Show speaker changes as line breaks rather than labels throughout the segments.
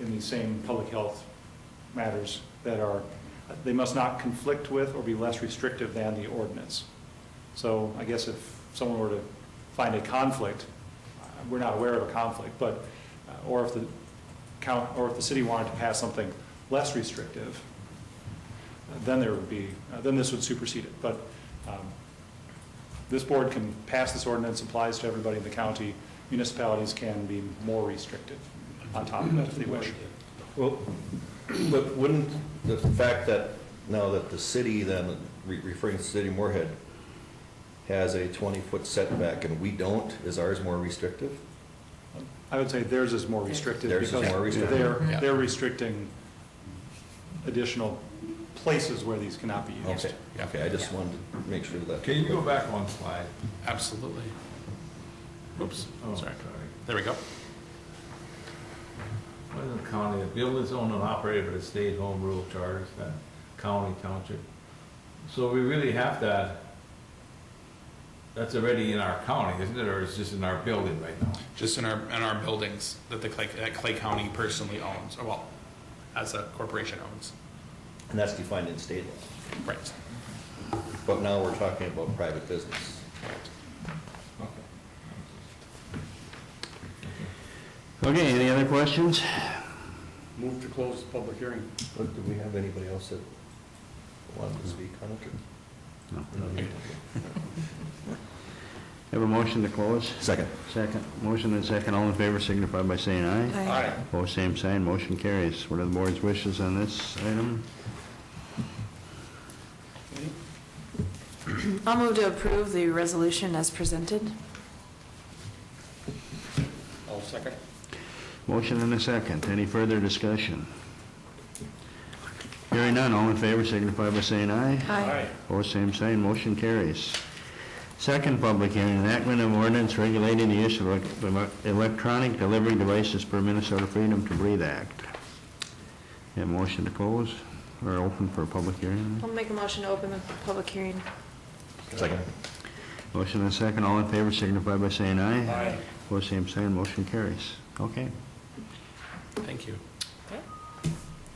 in these same public health matters that are, they must not conflict with or be less restrictive than the ordinance. So I guess if someone were to find a conflict, uh, we're not aware of a conflict, but, uh, or if the count, or if the city wanted to pass something less restrictive, uh, then there would be, uh, then this would supersede it. But um, this board can pass this ordinance, applies to everybody in the county. Municipalities can be more restrictive on top of that if they wish.
Well, but wouldn't the fact that, now that the city then, re- referring to City of Moorhead, has a 20-foot setback and we don't, is ours more restrictive?
I would say theirs is more restrictive
Theirs is
because
more restrictive.
they're,
Yeah.
they're restricting additional places where these cannot be used.
Okay, okay, I just wanted to make sure that.
Can you go back one slide?
Absolutely. Oops,
Oh,
sorry. There we go.
What is the county, the building's owned and operated by the state home rule charter, it's not county township. So we really have that, that's already in our county, isn't it, or it's just in our building right now?
Just in our, in our buildings that the Clay, that Clay County personally owns, or well, as a corporation owns.
And that's defined in state law.
Right,
But now we're talking about private business.
right.
Okay, any other questions?
Move to close the public hearing.
Look, do we have anybody else that wanted to speak on it?
No.
No.
Have a motion to close?
Second.
Second. Motion and second. All in favor signify by saying aye.
All right.
Opposed, same sign. Motion carries. What are the board's wishes on this item?
I'll move to approve the resolution as presented.
I'll second.
Motion and a second. Any further discussion? Hearing none. All in favor signify by saying aye.
Aye.
Opposed, same sign. Motion carries. Second public hearing, enactment of ordinance regulating the use of elec- electronic delivery devices per Minnesota Freedom to Breathe Act. Have a motion to close or open for a public hearing?
I'll make a motion to open the public hearing.
Second.
Motion and second, all in favor signify by saying aye.
Aye.
Opposed, same sign, motion carries. Okay.
Thank you.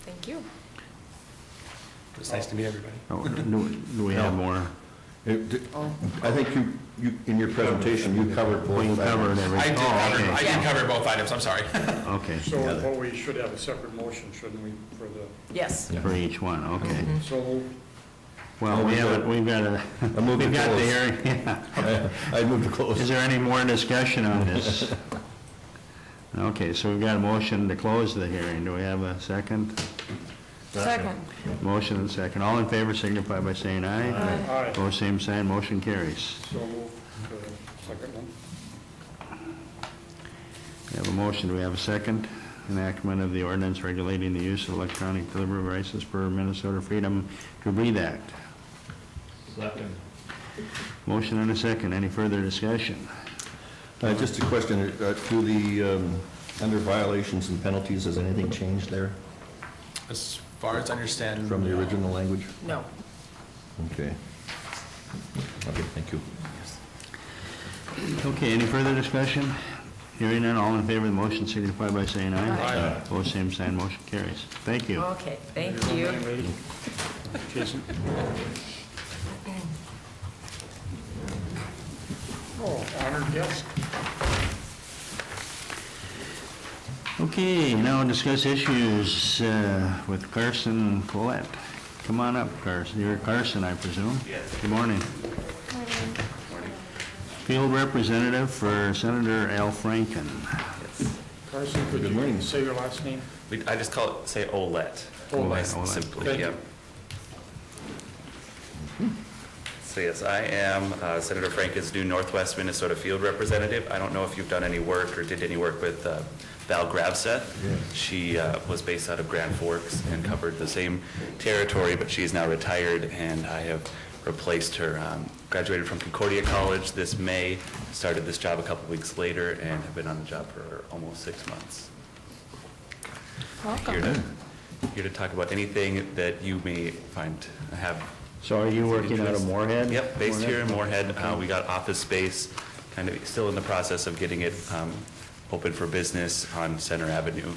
Thank you.
It was nice to meet everybody.
Oh, Do do we have more?
It- d- I think you, you, in your presentation, you covered both.
We covered
items.
I
Oh,
everything. Oh,
did cover, I did cover both items, I'm sorry.
Okay,
So
Yeah.
what we should have a separate motion, shouldn't we, for the,
Yes.
for each one, okay.
so moved.
Well, we haven't, we've got a,
I move to
we've got the
close.
hearing, yeah.
I I moved to
Is
close.
there any more discussion on this? Okay, so we've got a motion to close the hearing. Do we have a second?
Second.
Motion and second. All in favor signify by saying aye.
Aye.
Aye.
Opposed, same sign. Motion carries.
So moved, the second one.
We have a motion. Do we have a second? Enactment of the ordinance regulating the use of electronic delivery devices per Minnesota Freedom to Breathe Act.
Second.
Motion and a second. Any further discussion?
Uh, Just a question, uh, to the, um, under violations and penalties, has anything changed there
As far as I understand. uh,
from the original language?
No.
Okay. Okay, thank you.
Okay, any further discussion? Hearing none, all in favor of the motion signify by saying aye.
Aye.
Opposed, same sign. Motion carries. Thank you.
Okay, thank you.
Jason?
Oh, honored guest.
Okay, now discuss issues uh, with Carson Colette. Come on up, Carson. You're Carson, I presume? Yes. Good morning. Field representative for Senator Al Franken.
Carson, could
Good morning.
you say your last name?
We, I just call it, say OLET.
Olet,
Nice,
Olet.
Simply,
Thank
yeah.
you.
So yes, I am uh, Senator Franken's new Northwest Minnesota Field Representative. I don't know if you've done any work or did any work with uh, Val Gravseth. She uh, was based out of Grand Forks and covered the same territory, but she is now retired, and I have replaced her. Um, Graduated from Concordia College this May, started this job a couple weeks later, and have been on the job for almost six months here
Welcome.
to, here to talk about anything that you may find, have.
So are you working out of Moorhead?
Yep, based here in Moorhead. Uh,
Okay.
We got office space, kind of still in the process of getting it um, open for business on Center Avenue.